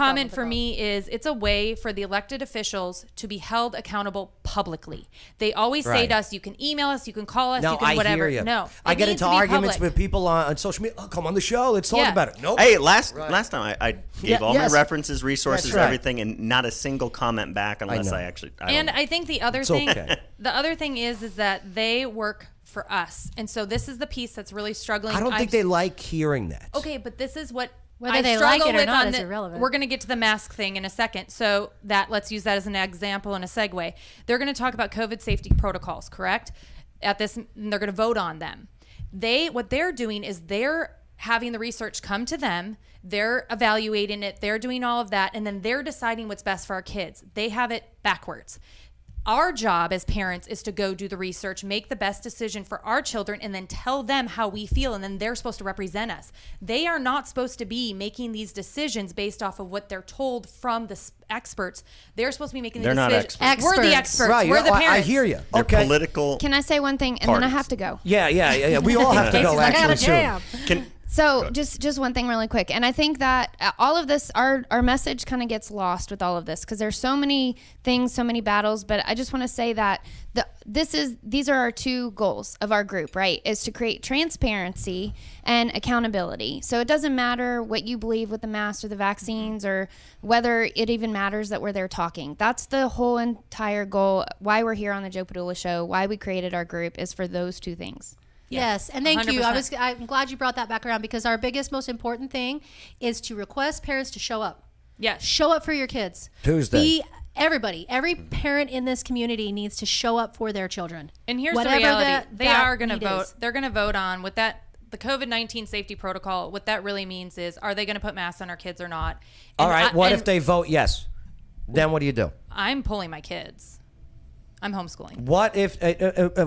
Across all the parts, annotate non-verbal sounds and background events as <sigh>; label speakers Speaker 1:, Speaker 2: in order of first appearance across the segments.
Speaker 1: comment for me is it's a way for the elected officials to be held accountable publicly. They always say
Speaker 2: Right.
Speaker 1: to us, "You can email us, you can call us,
Speaker 2: No,
Speaker 1: you can
Speaker 2: I
Speaker 1: whatever."
Speaker 2: hear you.
Speaker 1: No,
Speaker 2: I
Speaker 1: it
Speaker 2: get
Speaker 1: needs
Speaker 2: into
Speaker 1: to be
Speaker 2: arguments
Speaker 1: public.
Speaker 2: with people on, on social media. Oh, come on the show. Let's talk
Speaker 1: Yeah.
Speaker 2: about it. Nope.
Speaker 3: Hey, last last time I, I gave
Speaker 2: Yeah,
Speaker 3: all
Speaker 2: yes.
Speaker 3: my references, resources,
Speaker 2: right.
Speaker 3: everything, and not a single comment back unless
Speaker 2: know.
Speaker 3: I, actually. I
Speaker 1: And
Speaker 3: don't-
Speaker 1: I think the other
Speaker 2: It's
Speaker 1: thing,
Speaker 2: okay.
Speaker 1: the other thing is, is that they work for us, and so this is the piece that's really struggling.
Speaker 2: I don't
Speaker 1: I've-
Speaker 2: think they like hearing that.
Speaker 1: Okay, but this is what
Speaker 4: Whether
Speaker 1: I
Speaker 4: they
Speaker 1: struggle
Speaker 4: like it or
Speaker 1: with
Speaker 4: not
Speaker 1: on
Speaker 4: is
Speaker 1: the-
Speaker 4: irrelevant.
Speaker 1: We're going to get to the mask thing in a second. So that let's use that as an example and a segue. They're going to talk about COVID safety protocols, correct? At this, and they're going to vote on them. They what they're doing is they're having the research come to them. They're evaluating it. They're doing all of that, and then they're deciding what's best for our kids. They have it backwards. Our job as parents is to go do the research, make the best decision for our children, and then tell them how we feel. And then they're supposed to represent us. They are not supposed to be making these decisions based off of what they're told from the s- experts. They're supposed to be making
Speaker 3: They're
Speaker 1: the
Speaker 3: not
Speaker 1: decision.
Speaker 3: experts.
Speaker 1: We're the
Speaker 4: Experts.
Speaker 1: experts.
Speaker 2: Right. you
Speaker 1: We're
Speaker 2: know,
Speaker 1: the
Speaker 2: I-
Speaker 1: parents.
Speaker 2: I, hear you.
Speaker 3: they're
Speaker 2: okay.
Speaker 3: political.
Speaker 4: Can I say one thing and then I
Speaker 3: Parties.
Speaker 4: have to go?
Speaker 2: yeah, yeah, yeah, yeah. We all have to
Speaker 4: Casey's
Speaker 2: go
Speaker 4: like, I
Speaker 2: actually
Speaker 4: gotta
Speaker 2: soon.
Speaker 3: Can-
Speaker 4: So just just one thing really quick, and I think that uh, all of this, our our message kind of gets lost with all of this because there's so many things, so many battles. But I just want to say that the this is these are our two goals of our group, right? Is to create transparency and accountability. So it doesn't matter what you believe with the mask or the vaccines or whether it even matters that we're there talking. That's the whole entire goal. Why we're here on the Joe Padula Show, why we created our group, is for those two things.
Speaker 5: Yes, and thank you. I
Speaker 1: 100%.
Speaker 5: was I'm glad you brought that back around because our biggest, most important thing is to request parents to show up.
Speaker 1: Yes.
Speaker 5: Show up for your kids.
Speaker 2: Tuesday.
Speaker 5: Be everybody. Every parent in this community needs to show up for their children.
Speaker 1: And here's
Speaker 5: Whatever
Speaker 1: the reality:
Speaker 5: the-
Speaker 1: they
Speaker 5: that
Speaker 1: are going to
Speaker 5: need is.
Speaker 1: vote. They're going to vote on what that the COVID nineteen safety protocol. What that really means is: are they going to put masks on our kids or not?
Speaker 2: All
Speaker 1: And
Speaker 2: right.
Speaker 1: I-
Speaker 2: What if
Speaker 1: and
Speaker 2: they vote yes? Then what do you do?
Speaker 1: I'm pulling my kids. I'm homeschooling.
Speaker 2: What if, uh, uh, uh, uh,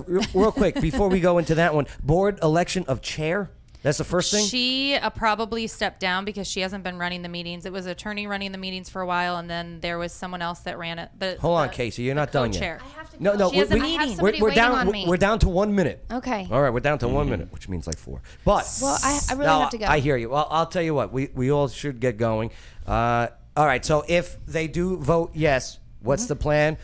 Speaker 1: <laughs>
Speaker 2: real quick, before we go into that one, board election of chair? That's the first thing?
Speaker 1: She uh, probably stepped down because she hasn't been running the meetings. It was attorney running the meetings for a while, and then there was someone else that ran it. The,
Speaker 2: Hold on,
Speaker 1: the-
Speaker 2: Casey. You're not
Speaker 1: the
Speaker 2: done yet.
Speaker 1: co-chair. I have
Speaker 2: No, no.
Speaker 1: She has a meeting. I have
Speaker 2: We're,
Speaker 4: somebody
Speaker 2: we're
Speaker 4: waiting
Speaker 2: down.
Speaker 4: on
Speaker 2: we're-
Speaker 4: me.
Speaker 2: We're down to one minute.
Speaker 4: Okay.
Speaker 2: All right, we're down to
Speaker 3: Mm-hmm.
Speaker 2: one minute, which means like four. But
Speaker 4: Well, I- I really
Speaker 2: No,
Speaker 4: have to go.
Speaker 2: I hear you. Well, I'll tell you what. We we all should get going. Uh, all right. So if they do vote yes,
Speaker 4: Mm-hmm.
Speaker 2: what's the plan?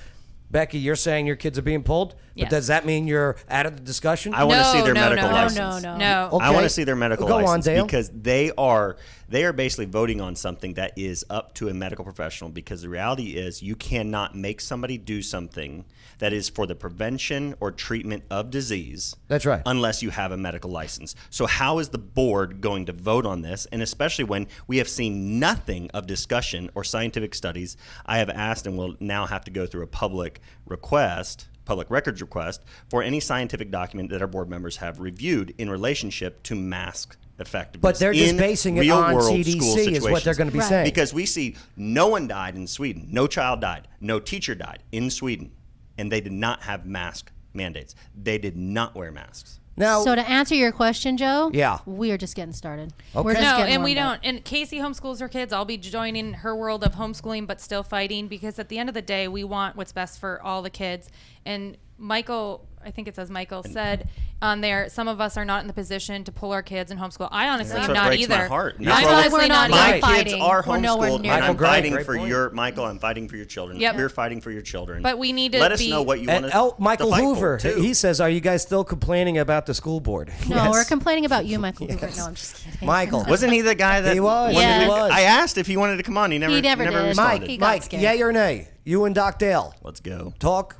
Speaker 2: Becky, you're saying your kids are being pulled,
Speaker 1: Yes.
Speaker 2: but does that mean you're out of the discussion?
Speaker 3: I want to
Speaker 1: No,
Speaker 3: see their
Speaker 1: no,
Speaker 3: medical
Speaker 1: no, no,
Speaker 3: license. Oh,
Speaker 5: no, no.
Speaker 1: No.
Speaker 2: Okay.
Speaker 3: I want to see their medical
Speaker 2: Go on,
Speaker 3: license
Speaker 2: Dale.
Speaker 3: because they are they are basically voting on something that is up to a medical professional because the reality is you cannot make somebody do something that is for the prevention or treatment of disease.
Speaker 2: That's right.
Speaker 3: Unless you have a medical license. So how is the board going to vote on this and especially when we have seen nothing of discussion or scientific studies. I have asked and will now have to go through a public request public records request for any scientific document that our board members have reviewed in relationship to mask effectiveness.
Speaker 2: But they're just
Speaker 3: in
Speaker 2: basing it
Speaker 3: real
Speaker 2: on
Speaker 3: world
Speaker 2: CDC
Speaker 3: school
Speaker 2: is what they're
Speaker 3: situations.
Speaker 2: gonna be Right. saying.
Speaker 3: Because we see no one died in Sweden, no child died, no teacher died in Sweden, and they did not have mask mandates. They did not wear masks.
Speaker 2: now,
Speaker 5: So to answer your question, Joe,
Speaker 2: Yeah.
Speaker 5: we are just getting started. We're just
Speaker 1: No,
Speaker 5: getting
Speaker 1: and we
Speaker 5: warmed
Speaker 1: don't.
Speaker 5: up.
Speaker 1: And Casey homeschools her kids. I'll be joining her world of homeschooling, but still fighting because at the end of the day, we want what's best for all the kids. And Michael, I think it says Michael said on there, some of us are not in the position to pull our kids and homeschool. I honestly
Speaker 3: That's
Speaker 1: am
Speaker 3: what
Speaker 1: not
Speaker 3: breaks
Speaker 1: either.
Speaker 3: my heart.
Speaker 1: I'm
Speaker 3: That's why
Speaker 1: honestly
Speaker 5: we're
Speaker 1: not. either.
Speaker 5: not
Speaker 3: My
Speaker 5: We're fighting.
Speaker 3: kids are
Speaker 5: We're nowhere
Speaker 3: homeschooled, and
Speaker 5: near
Speaker 3: I'm
Speaker 2: Michael, great,
Speaker 3: fighting
Speaker 2: great
Speaker 3: for
Speaker 2: point.
Speaker 3: your Michael. I'm fighting for your children.
Speaker 1: Yep.
Speaker 3: We're fighting for your children.
Speaker 1: But we need to
Speaker 3: let us
Speaker 1: be-
Speaker 3: know what you want
Speaker 2: and
Speaker 3: us
Speaker 2: El- uh,
Speaker 3: to
Speaker 2: oh, Michael
Speaker 3: fight for,
Speaker 2: Hoover,
Speaker 3: too.
Speaker 2: he says, "Are you guys still complaining about the school board?" <laughs>
Speaker 5: No,
Speaker 2: Yes.
Speaker 5: we're complaining about
Speaker 2: <laughs>
Speaker 5: you, Michael. Hoover. No, I'm just kidding.
Speaker 2: Michael,
Speaker 3: Wasn't he the guy that
Speaker 2: He was,
Speaker 3: wanted
Speaker 5: he
Speaker 3: to-
Speaker 2: was.
Speaker 3: I asked if he wanted to come on. He never.
Speaker 5: He never did.
Speaker 3: responded.
Speaker 2: Mike,
Speaker 5: He got
Speaker 2: Mike,
Speaker 5: scared.
Speaker 2: yay or nay? You and Doc Dale
Speaker 3: Let's go.
Speaker 2: talk.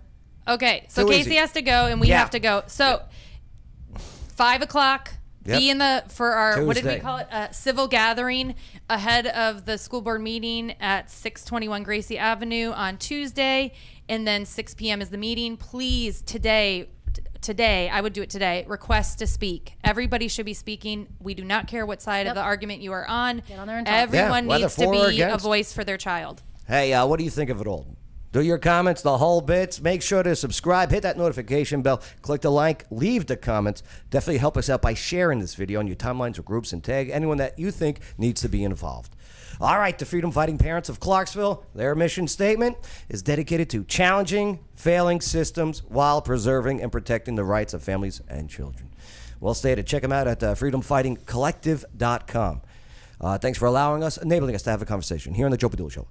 Speaker 1: Okay, so
Speaker 2: Too
Speaker 1: Casey
Speaker 2: easy.
Speaker 1: has to go, and we
Speaker 2: Yeah.
Speaker 1: have to go. So five o'clock.
Speaker 2: Yep.
Speaker 1: Be in the for our what did we
Speaker 2: Tuesday.
Speaker 1: call it? Uh, civil gathering ahead of the school board meeting at six twenty one Gracie Avenue on Tuesday, and then six p.m. is the meeting. Please today. t- Today, I would do it today. Request to speak. Everybody should be speaking. We do not care what side of the argument you are on.
Speaker 5: on there and talk. Yeah,
Speaker 1: Everyone
Speaker 2: whether
Speaker 1: needs
Speaker 2: for
Speaker 1: to
Speaker 2: or
Speaker 1: be a
Speaker 2: against.
Speaker 1: voice for their child.
Speaker 2: Hey, uh, what do you think of it all? Do your comments, the whole bits. Make sure to subscribe, hit that notification bell, click the like, leave the comments. Definitely help us out by sharing this video on your timelines or groups and tag anyone that you think needs to be involved. All right, the Freedom Fighting Parents of Clarksville, their mission statement is dedicated to challenging failing systems while preserving and protecting the rights of families and children. Well stated. Check them out at uh, freedomfightingcollective.com. Uh, thanks for allowing us, enabling us to have a conversation here on the Joe Padula Show.